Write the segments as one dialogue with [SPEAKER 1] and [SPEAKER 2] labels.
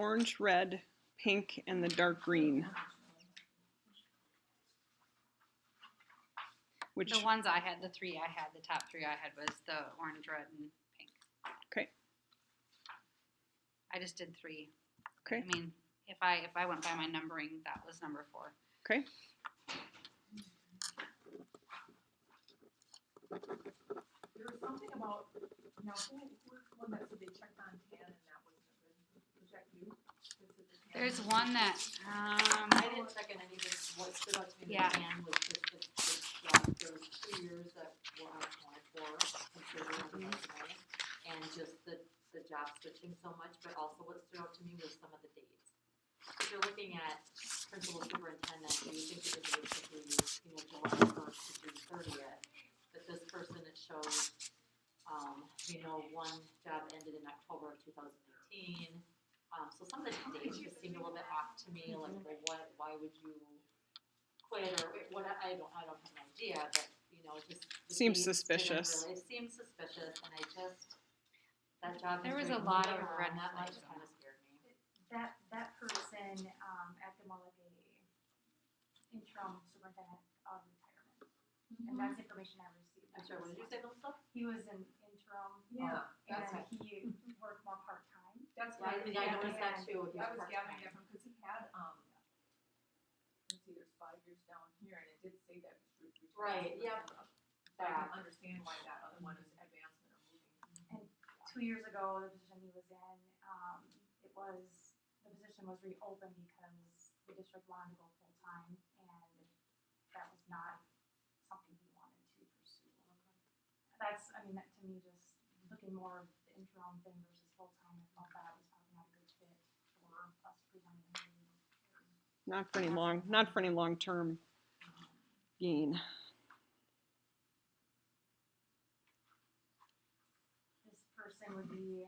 [SPEAKER 1] orange, red, pink, and the dark green. Which,
[SPEAKER 2] The ones I had, the three I had, the top three I had was the orange, red, and pink.
[SPEAKER 1] Okay.
[SPEAKER 2] I just did three.
[SPEAKER 1] okay,
[SPEAKER 2] I mean, if I if I went by my numbering, that was number four.
[SPEAKER 1] okay.
[SPEAKER 3] There was something about, now who, who was the one that said they checked on tan and that wasn't good? Was that you? that said the tan
[SPEAKER 2] There's
[SPEAKER 3] was-
[SPEAKER 2] one that um,
[SPEAKER 4] I didn't check in any of this, what stood out to me in
[SPEAKER 2] Yeah.
[SPEAKER 4] the plan was just the, the, job. there was two years that were on twenty four, considering the resume, and just the, the job switching so much, but also what stood out to me was some of the dates. If you're looking at principal superintendent, you would think that it would be, you know, July first to June thirtieth, but this person, it shows, um, you know, one job ended in October of two thousand nineteen, um, so some of the dates just seemed a little bit off to me, like, well, what, why would you quit, or what, I don't, I don't have an idea, but, you know, it just. the
[SPEAKER 1] Seems
[SPEAKER 4] dates didn't
[SPEAKER 1] suspicious.
[SPEAKER 4] really- It seems suspicious, and I just, that job.
[SPEAKER 2] There
[SPEAKER 4] is
[SPEAKER 2] was a
[SPEAKER 4] doing
[SPEAKER 2] lot
[SPEAKER 4] nothing
[SPEAKER 2] of
[SPEAKER 4] wrong,
[SPEAKER 2] red
[SPEAKER 4] That might
[SPEAKER 2] flags on
[SPEAKER 4] kind of
[SPEAKER 2] it.
[SPEAKER 4] scared me.
[SPEAKER 5] That, that person, um, acted more like a interim superintendent of retirement. And that's information I received.
[SPEAKER 4] I'm sorry, what did you say, Melissa?
[SPEAKER 5] He was an interim.
[SPEAKER 3] Yeah, that's
[SPEAKER 5] And
[SPEAKER 4] right.
[SPEAKER 5] he worked more part-time.
[SPEAKER 3] That's
[SPEAKER 4] Yeah, I
[SPEAKER 3] why.
[SPEAKER 4] mean, I noticed that too. with your
[SPEAKER 3] I was
[SPEAKER 4] part-time.
[SPEAKER 3] gathering that from, cause he had, um, let's see, there's five years down here and it did say that. it was re-
[SPEAKER 4] Right, yep.
[SPEAKER 3] So I don't understand why that other one is advancement or moving.
[SPEAKER 5] Two years ago, the position he was in, um, it was, the position was reopened because the district wanted to go full-time and that was not something he wanted to pursue. That's, I mean, that to me, just looking more of the interim thing versus full-time, I thought that was probably not a good fit for us presenting.
[SPEAKER 1] Not for any long, not for any long-term gain.
[SPEAKER 5] This person would be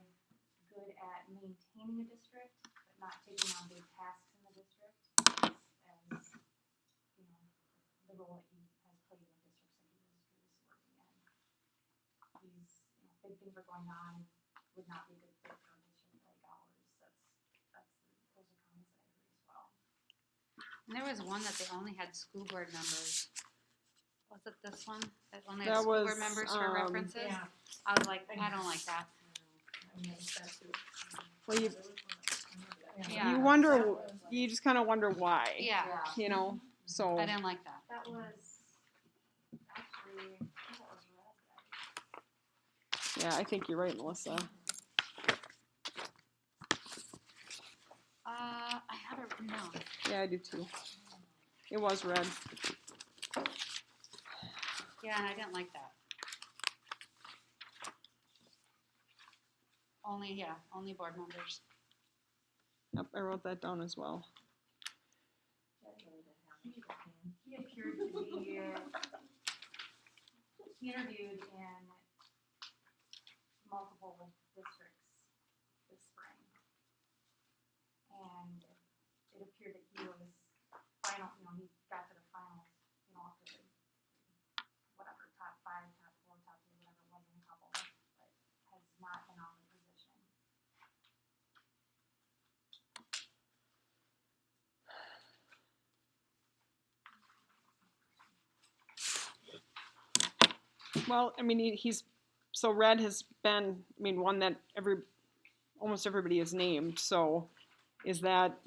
[SPEAKER 5] good at maintaining a district, but not taking on big tasks in the district. As, you know, the role that he has played in the districts that he was previously working in. These, you know, big things are going on, would not be a good fit for a district like ours, that's, that's, those are comments that I heard as well.
[SPEAKER 2] and there was one that they only had school board members. Was it this one that only
[SPEAKER 1] That
[SPEAKER 2] had school
[SPEAKER 1] was,
[SPEAKER 2] board members for
[SPEAKER 1] um,
[SPEAKER 2] references? I was like, I don't like that.
[SPEAKER 3] I noticed that too.
[SPEAKER 1] Well, you,
[SPEAKER 3] There was one that- I remember that.
[SPEAKER 2] Yeah.
[SPEAKER 1] you wonder,
[SPEAKER 3] That was-
[SPEAKER 1] you just kind of wonder why.
[SPEAKER 2] Yeah,
[SPEAKER 1] You know, so.
[SPEAKER 2] I didn't like that.
[SPEAKER 5] That was actually, I think that was red, I
[SPEAKER 1] Yeah, I think you're right, Melissa.
[SPEAKER 2] Uh, I have it written down.
[SPEAKER 1] Yeah, I do too. It was red.
[SPEAKER 2] Yeah, and I didn't like that. Only, yeah, only board members.
[SPEAKER 1] Yep, I wrote that down as well.
[SPEAKER 5] He appeared to be, he interviewed in multiple districts this spring. And it appeared that he was final, you know, he got to the final, you know, after the, whatever, top five, top four, top three, whatever, it was in a couple, but has not been on the position.
[SPEAKER 1] Well, I mean, he- he's, so red has been, I mean, one that every, almost everybody is named, so is that,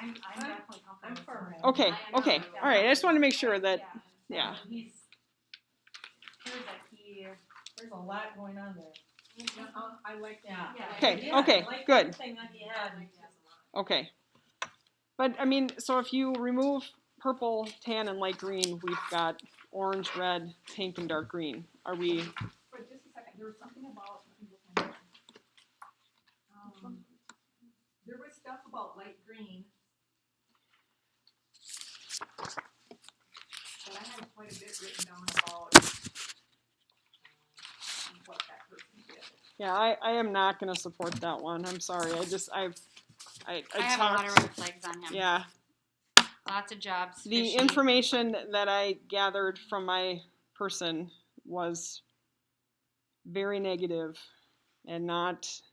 [SPEAKER 5] I'm, I'm definitely comfortable.
[SPEAKER 3] I'm
[SPEAKER 5] with
[SPEAKER 3] for
[SPEAKER 5] him.
[SPEAKER 3] red.
[SPEAKER 1] okay,
[SPEAKER 4] I am
[SPEAKER 1] okay,
[SPEAKER 4] not-
[SPEAKER 1] all right, I just want to make sure that,
[SPEAKER 5] Yeah.
[SPEAKER 1] yeah.
[SPEAKER 5] He's, appears that he,
[SPEAKER 6] There's a lot going on there.
[SPEAKER 3] Uh-uh, I like that.
[SPEAKER 5] yeah.
[SPEAKER 1] Okay,
[SPEAKER 6] Yeah, I
[SPEAKER 1] okay,
[SPEAKER 6] like
[SPEAKER 1] good.
[SPEAKER 6] everything that you had.
[SPEAKER 1] Okay. But I mean, so if you remove purple, tan, and light green, we've got orange, red, pink, and dark green. Are we,
[SPEAKER 3] But just a second, there was something about, let me look at it.
[SPEAKER 5] Um,
[SPEAKER 3] There was stuff about light green. But I had quite a bit written down about um, what that person did.
[SPEAKER 1] yeah, I, I am not gonna support that one. I'm sorry. I just, I've, I, I
[SPEAKER 2] I have a
[SPEAKER 1] talked.
[SPEAKER 2] lot of red flags on him.
[SPEAKER 1] yeah,
[SPEAKER 2] Lots of jobs.
[SPEAKER 1] the
[SPEAKER 2] fishy.
[SPEAKER 1] information that I gathered from my person was very negative and not